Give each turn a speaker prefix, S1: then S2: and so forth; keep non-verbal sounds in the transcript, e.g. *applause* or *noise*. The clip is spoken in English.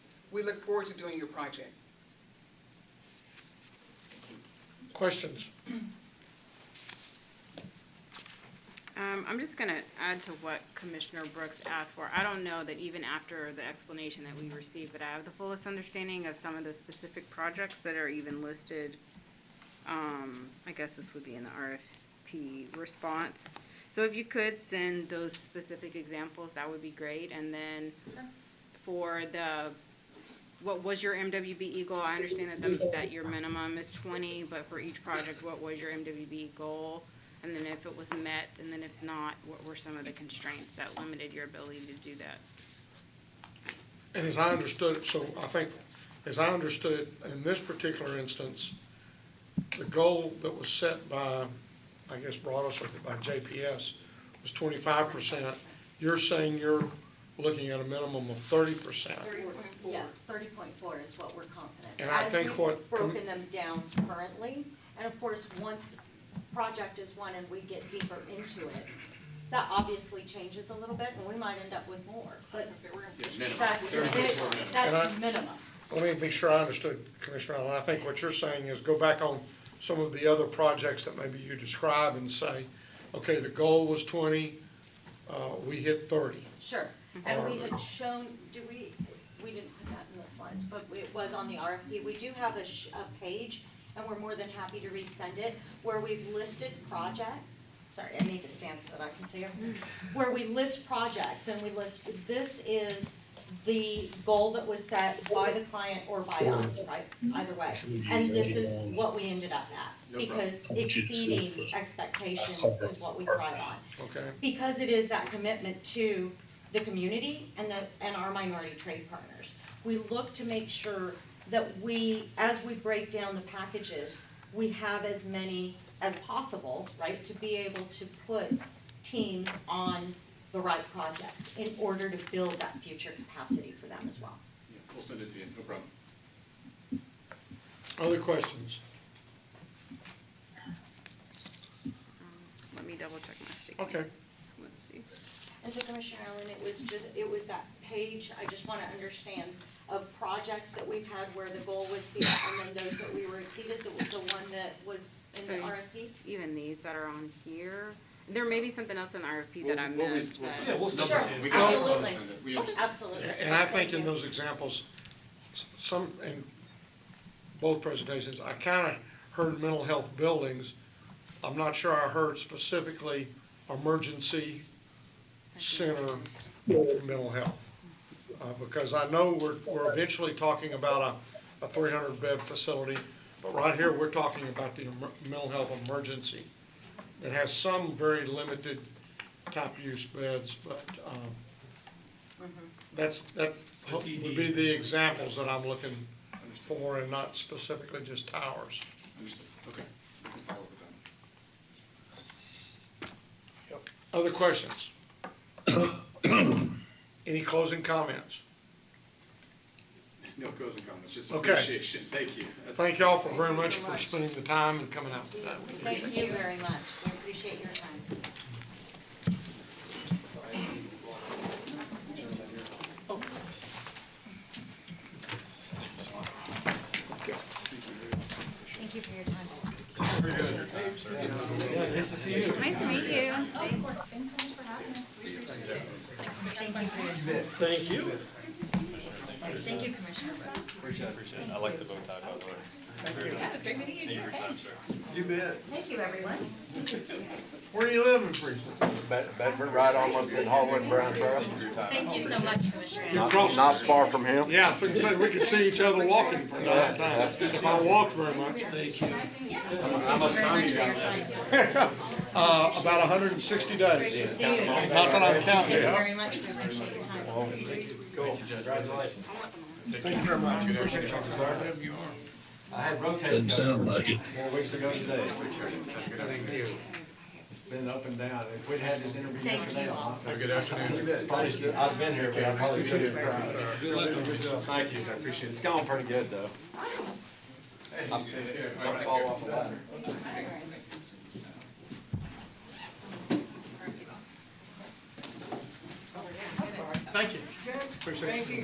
S1: We look forward to doing your project.
S2: Questions?
S3: Um, I'm just gonna add to what Commissioner Brooks asked for. I don't know that even after the explanation that we received, that I have the fullest understanding of some of the specific projects that are even listed. Um, I guess this would be in the RFP response. So if you could send those specific examples, that would be great. And then for the, what was your MWB Eagle? I understand that, the- that your minimum is twenty, but for each project, what was your MWB goal? And then if it was met, and then if not, what were some of the constraints that limited your ability to do that?
S2: And as I understood it, so I think, as I understood it, in this particular instance, the goal that was set by, I guess brought us by JPS was twenty-five percent. You're saying you're looking at a minimum of thirty percent.
S4: Yes, thirty point four is what we're confident.
S2: And I
S4: As
S2: think
S4: we've
S2: what com-
S4: Broken them down currently, and of course, once project is one and we get deeper into it, that obviously changes a little bit, and we might end up with more, but that's,
S2: And I-
S4: that's minimum.
S2: Let me make sure I understood, Commissioner Allen. I think what you're saying is go back on some of the other projects that maybe you describe and say, okay, the goal was twenty, uh, we hit thirty.
S4: Sure, and we
S2: Or-
S4: had shown, do we, we didn't put that in the slides, but we- it was on the RFP, we do have a sh- a page, and we're more than happy to resend it, where we've listed projects, sorry, I need to stand so that I can see them, where we list projects, and we list, this is the goal that was set by the client or by us, right, either way, and this is what we ended up at, because exceeding expectations is what we thrive on.
S2: Okay,
S4: Because it is that commitment to the community and the, and our minority trade partners. We look to make sure that we, as we break down the packages, we have as many as possible, right? To be able to put teams on the right projects in order to build that future capacity for them as well.
S5: Yeah, We'll send it to you, no problem.
S2: other questions?
S3: Let me double check my stickies.
S2: Okay.
S3: Let's see.
S4: And so Commissioner Allen, it was just, it was that page, I just wanna understand, of projects that we've had where the goal was here, and then those that we were exceeded, the, the one that was in the
S3: So you-
S4: RFP?
S3: Even these that are on here, there may be something else in the RFP
S5: We'll-
S3: that I
S5: we'll
S3: missed,
S5: res- we'll
S3: but-
S5: send
S6: Yeah,
S5: it.
S6: we'll
S5: No
S6: send it
S4: Sure,
S5: problem. We can
S4: absolutely.
S5: send it. We understand.
S4: Absolutely.
S2: And I think
S4: Thank
S2: in
S4: you.
S2: those examples, s- some, in both presentations, I kinda heard mental health buildings. I'm not sure I heard specifically emergency center for mental health. Uh, because I know we're, we're eventually talking about a, a three hundred bed facility, but right here, we're talking about the emer- mental health emergency. It has some very limited top use beds, but, um, that's, that
S6: The
S2: would
S6: TD.
S2: be the examples that I'm looking for and not specifically just towers.
S5: Understood, okay. We can follow up with that.
S2: Other questions? *coughs* Any closing comments?
S5: No goes and comments, just
S2: Okay.
S5: appreciation, thank you. That's-
S2: Thank y'all for very much for spending the time and coming out today. We appreciate it.
S4: Thank you very much, we appreciate your time. Thank you for your time.
S6: Nice to see you.
S3: Nice to meet you.
S6: Thank you.
S4: Thank you, Commissioner Brooks.
S7: Appreciate it, appreciate it. I like the bow tie, by the way. Very nice. Thank you for your time, sir.
S8: You bet.
S4: Thank you, everyone.
S2: Where you living, Teresa?
S8: Bedford, right almost in Hallwood Brown Trail.
S7: Thank you for your time.
S4: Thank you so much, Commissioner Allen.
S2: You're
S8: Not
S2: crossing.
S8: not far from him.
S2: Yeah, I was gonna say, we could see each other walking from time to time, if I walked very much.
S5: How much time you got?
S2: *laughs* Uh, about hundred and sixty days.
S4: See you again.
S2: Not that I'm counting.
S4: Thank you very much, we appreciate your time.
S7: Cool. Congratulations.
S2: Thank you very much. Appreciate y'all.
S6: I had rotated. Doesn't sound like it. Four weeks ago today. It's been up and down. If we'd had this interview
S4: Thank
S6: today,
S4: you all.
S6: I'd Good afternoon. Probably, still- I've been here, but I probably could have cried. Thank you, I appreciate it. It's gone pretty good, though. I'm gonna follow up on that.
S2: Thank you. Appreciate you.